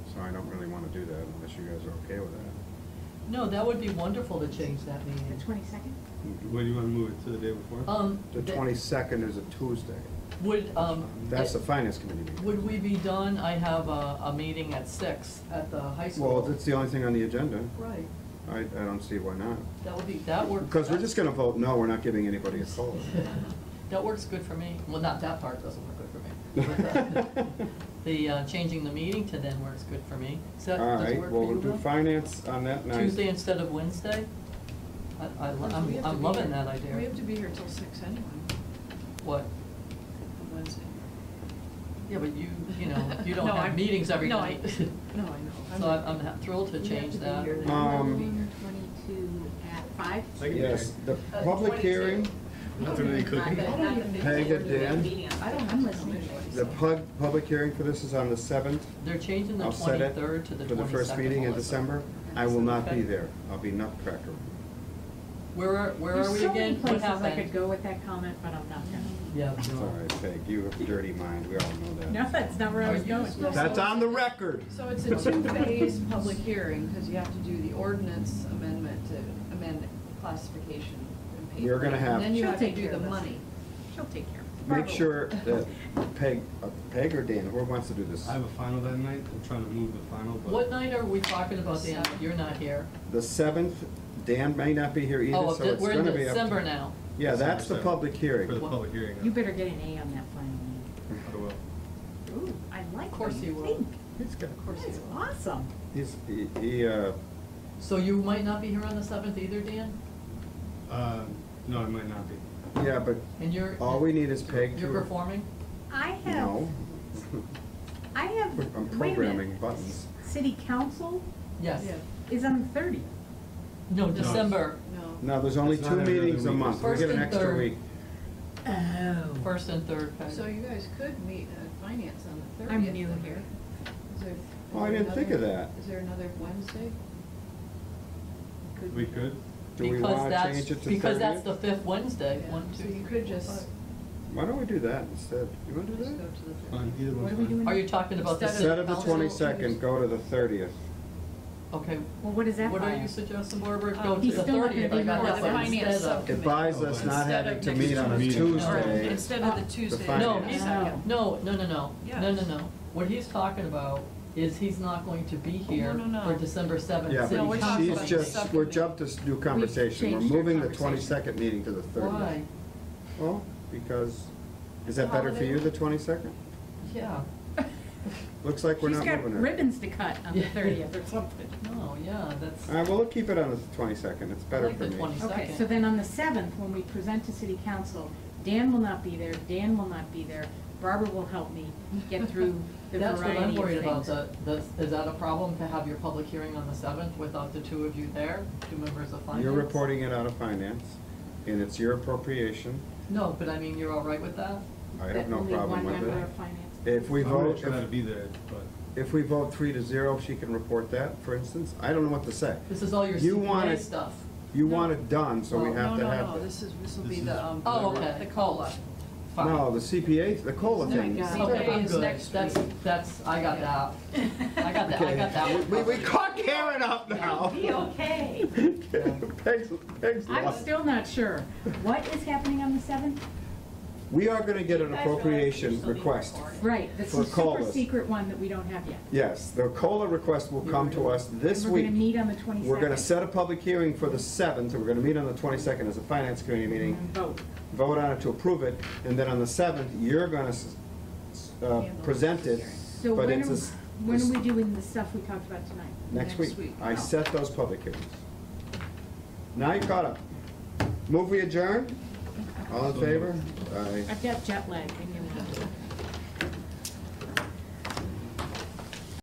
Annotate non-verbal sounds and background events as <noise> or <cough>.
I don't really want to do that unless you guys are okay with that. No, that would be wonderful to change that The meeting. twenty-second? What do you want to move it to the day before? Um, The th- twenty-second is a Tuesday. Would, um. That's the it- finance committee meeting. Would we be done? I have a, a meeting at six at the high school. Well, that's the only thing on the agenda. Right, I, I don't see why not. that would be, that works. Because we're <laughs> just gonna vote no, we're not giving anybody a <laughs> COLA. That works good for me. Well, not that part doesn't work good for <laughs> me. But, uh, The, uh, changing the meeting to then works good for me. Does that, All does it right, work well, for we'll you, do Bill? finance on that night. Tuesday instead of Wednesday? I, I, lo- Because we I'm, have to I'm be loving here- that idea. We have to be here till six anyway, What? on Wednesday. Yeah, but you, you know, you don't <laughs> No, have I'm- meetings every no, I- night. <laughs> No, I know. So I'm, I'm thrilled to change that. You Um, have to be here twenty-two at five. Second. Yes, the Uh, public hearing, 22. Nothing really Not the- not the Peg fifteen, and the Dan. meeting on I don't the- have to anyway. the pub, public hearing for this is on the seventh. They're changing the I'll set it twenty-third to the twenty-second. For the first meeting in December. I will not Okay. be there. I'll be nutcracker. Where are, where are we There's so many again? What places I could happened? go with that comment, but I'm not gonna. Yeah, It's all no. right, Peg, you have a dirty mind, we all know that. No, that's not where I Are was you going. supposed That's on the record. So it's a two-phase public hearing, because you have to do the ordinance amendment to amend classification and pay. You're gonna for it, have- And then you She'll have to take do care the of this. money. She'll take care <laughs> of Make sure that Peg, uh, Peg or Dan, whoever wants to do this, I have a final that night, I'm trying to move the final, but. What night are we talking about, Dan? You're not here. the seventh, Dan may not be here Oh, either, of so the- it's we're in gonna be up. to- December now. Yeah, that's the December seventh. public For the hearing. public hearing. Oh, it. uh, You better get an A on that final. I will. Ooh, I like Of course what you you will. think. He's got, Of course That's you will. awesome. he's, he- he, uh, So you might not be here on the seventh either, Dan? Uh, no, I might not be. yeah, but And you're. all we need is Peg to. You're performing? I have, No. I have, wait a I'm minute. programming buttons. City council Yes. Yeah, is on the thirtieth. No, No. December, no. No, there's only It's two not every other meetings a week. month, we First get an and extra third. week. Oh. first and third, Peg. So you guys could meet at finance on the 30th I'm new then. here. Is there- Oh, I is there didn't think of another- that. Is there another Wednesday? We could, Do we Because wanna that's- change it to Because that's the thirtieth? fifth Wednesday, Yeah, one, So you two, three, could four, just. five. Why don't we do that instead? You wanna do Just go that? to the fine, either What one's are we fine. doing? Are you talking about the? Instead Instead city of the Also, council? twenty-second, go to the thirtieth. Okay. Well, what is that What are by? you suggesting, Barbara? Um, Go to he's the still not gonna thirtieth, I be got here. that one Finance instead of. sub- It buys us not having to meet on a Tuesday. Instead of the Tuesday. finance. No, the he's, 22nd. no, no, no, no, no, no, Yes. no. What he's talking about is he's not going to Oh, be here No, no, no. for December seventh. Yeah, No, we're but talking she's about just, something. we're jumped this new conversation. We're changed our moving the conversation. twenty-second meeting to the thirtieth. Why? Well, because, is that better for you, the twenty-second? Yeah, Looks like we're She's not got moving it. ribbons to cut on the thirtieth or something. no, yeah, that's, All right, well, we'll keep it on the twenty-second. It's better like for the me. 20. Okay, Second. so then on the seventh, when we present to city council, Dan will not be there, Dan will not be there, Barbara will help me get through <laughs> the that's what variety I'm of worried about, things. the, the, is that a problem to have your public hearing on the seventh without the two of you there, two members of finance? You're reporting it out of finance, and it's your appropriation. No, but I mean, you're all right with that? I have no That problem Only one with member it. of finance. If we I'm gonna vote, try to if, be there, but if we vote three to zero, she can report that, for instance. I don't know what to say. This is all your You want CPA it- stuff. You want it done, so we Well, have to No, no, have no, this. this is, this will be This is- the, um. Oh, okay. The COLA. Fine. No, the CPA, the COLA It's not thing. good. is Okay, CPA I'm is good. next That's, week. that's, I got <laughs> that. I got that, I got that. We, one. we caught Karen up now. <laughs> Be okay. Peg's, Peg's I'm lost. still not sure. What is happening on the seventh? We are gonna get an appropriation request. Right, this For is super colas. secret one that we don't have yet. Yes, the COLA request will come to us this And We're gonna week. meet on the twenty-second. We're gonna set a public hearing for the seventh, we're gonna meet on the twenty-second as a finance committee And meeting, vote. vote on it to approve it, and then on the seventh, you're gonna, s- s- uh, present it, So but when it's are, a s- when s- are we doing the stuff we talked about tonight? Next Next week. week. I Oh. set those public hearings. Now you caught up. Move we adjourn? All in favor? Aye. I've got jet lag. I need